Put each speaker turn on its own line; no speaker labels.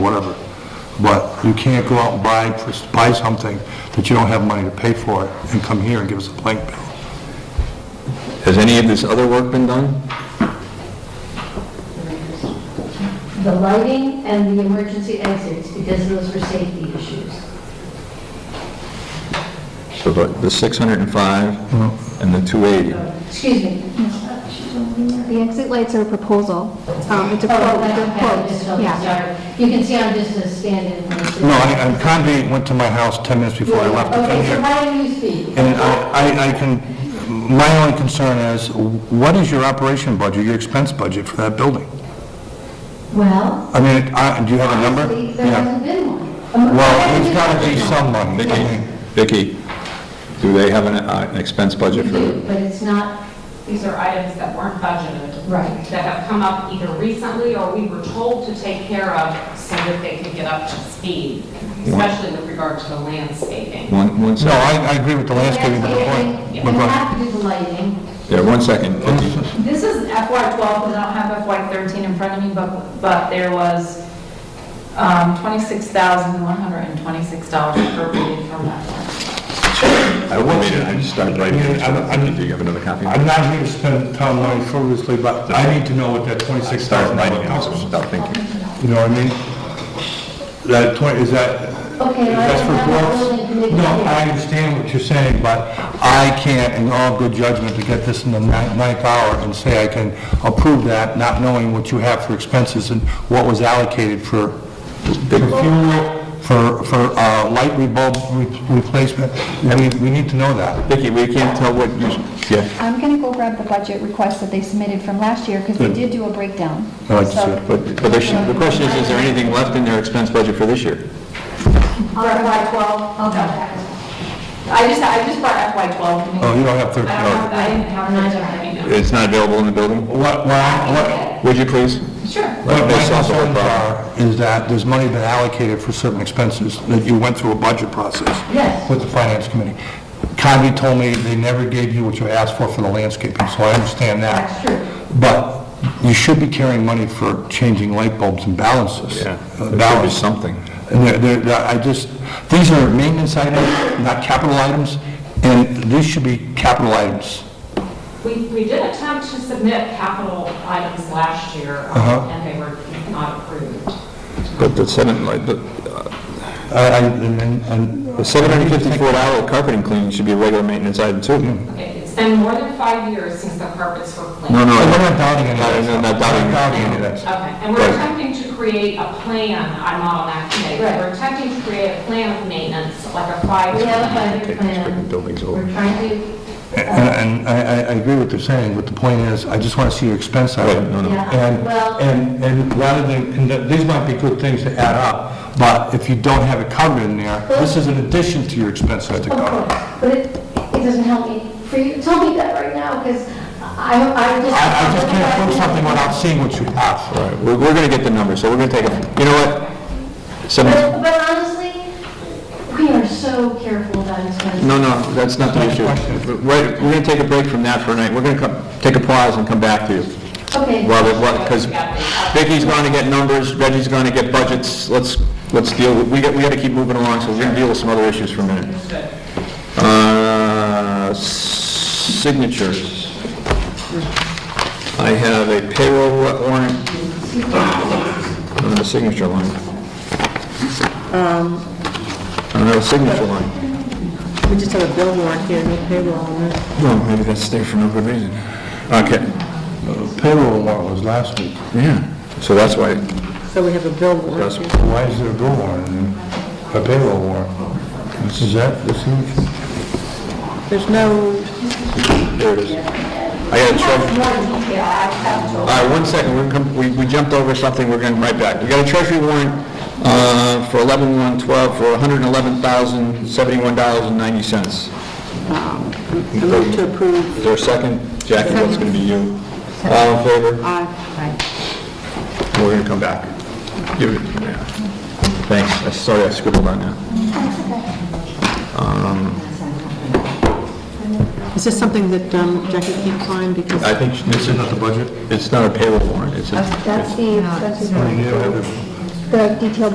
whatever. But you can't go out and buy, buy something that you don't have money to pay for and come here and give us a blank bill.
Has any of this other work been done?
the lighting and the emergency exits, because those were safety issues.
So the the 605 and the 280.
Excuse me,
The exit lights are a proposal. Um, It's a
Oh,
quote, they're
that's okay, I just
quotes,
felt-
yeah.
sorry. You can see I'm just a stand-in. for-
No, I, I- Convy went to my house 10 minutes before I left to come
Okay, so
here.
why don't you speak?
And I, I- I can, my only concern is, what is your operation budget, your expense budget for that building?
Well,
I mean, I- do you have a number?
honestly, there
Yeah.
hasn't been one. Um,
Well, there's
I
got to
haven't
be
been
some money. I
Vicki,
mean,
Vicki, do they have an uh, an expense budget
one.
for
We
it?
do, But it's not,
These are items that weren't budgeted.
Right.
That have come up either recently or we were told to take care of so that they could get up to speed, especially with regard to the landscaping.
One, one
No,
second.
I, I agree with the landscaping, but the point, but
we
go ahead.
have to do the lighting.
Yeah, one second, Vicki.
This is FY12, because I don't have FY13 in front of me, but, but there was um, $26,126 appropriated from that one.
I will read it, I just started writing it. so that- Do you have another copy?
I'm not here to spend town money frivolously, but I need to know what that twenty-six
Start
thousand
writing
dollars
it, so
costs.
stop thinking.
You know what I mean? That twenty, is that,
Okay, well, I
that's for
don't have a building
quotes?
committee
No,
here.
I understand what you're saying, but I can't, in all good judgment, to get this in the ni- ninth hour and say I can approve that, not knowing what you have for expenses and what was allocated for for fuel, for, for, uh, light bulb replacement. I mean, we need to know that.
Vicki, we can't tell what you, yeah,
I'm going to go grab the budget request that they submitted from last year, because they did do a breakdown.
I'd like to see
So-
it,
but, but there should- the question is, is there anything left in their expense budget for this year?
For FY12?
Okay.
I just, I just brought FY12. to me.
Oh, you don't have thirteen
I don't have- I didn't have
Neither
that.
have I.
It's not available in the building?
What, what,
Would you please?
Sure.
what my
Based off of a
concerns
problem.
are is that there's money been allocated for certain expenses, that you went through a budget process
Yes,
with the finance committee. Convy told me they never gave you what you asked for for the landscaping, so I understand that.
That's true.
But you should be carrying money for changing light bulbs and balances.
Yeah,
Uh,
there should be
balance.
something.
And they're- they're- they're- I just, these are maintenance items, not capital items, and these should be capital items.
We, we did attempt to submit capital items last year, um,
Uh-huh.
and they were not approved.
But the seven, like, the,
I- I- And, and- and...
the seven hundred fifty-four dollar carpeting cleaning should be a regular maintenance item too.
Okay, it's been more than five years since the carpets were cleaned.
No, no,
We're
I-
not doubting any of
No,
this.
no, not doubting.
We're Not doubting any of this.
Okay, and we're
Right.
attempting to create a plan, I'm not on that committee, but we're attempting to create a plan of maintenance, like a five.
we have a five-year
Okay, let's bring the
plan.
buildings over.
We're trying to
And and I, I- I agree what they're saying, but the point is, I just want to see your expense
Right,
item.
no, no.
Yeah,
And,
well-
and, and rather than, conduct- these might be good things to add up, but if you don't have it covered in there, this is an addition to your expenses to
Of
cover.
course, but it, it doesn't help me for you to tell me that right now, because I, I just...
I, I just can't prove something without seeing what you have.
All right, we're, we're gonna get the number, so we're gonna take a, you know what? Seven,
But but honestly, we are so careful about expenses.
no, no, that's not the issue. Right, we're gonna take a break from that for a night, we're gonna come, take a pause and come back to you.
Okay.
Well, because Vicky's gonna get numbers, Reggie's gonna get budgets, let's, let's deal, with- we got, we gotta keep moving along, so we're gonna deal with some other issues for a minute. Uh, signatures. I have a payroll warrant, on the signature line. On the signature line.
We just have a bill warrant here, no payroll on it.
Well, maybe that's there for no good reason. Okay,
Payroll warrant was last week.
yeah, so that's why,
So we have a bill warrant
that's,
here.
Why is there a bill warrant in there? A payroll warrant? This is that, this is...
There's no,
there it is. I got it, Trev. All right, one second, we're gonna come, we, we jumped over something, we're going right back. We got a treasury warrant, uh, for eleven one twelve for hundred and eleven thousand, seventy-one dollars and ninety cents.
I Um, move to approve.
Is there a second? Jackie, that's gonna be you. All in favor? We're gonna come back. Give it, yeah. Thanks, I sorry I scribbled on that.
Is this something that um, Jackie keeps on because
I think this is not the budget? It's not a payroll warrant, it's a
That's the, that's
Yeah, I have it.
the detailed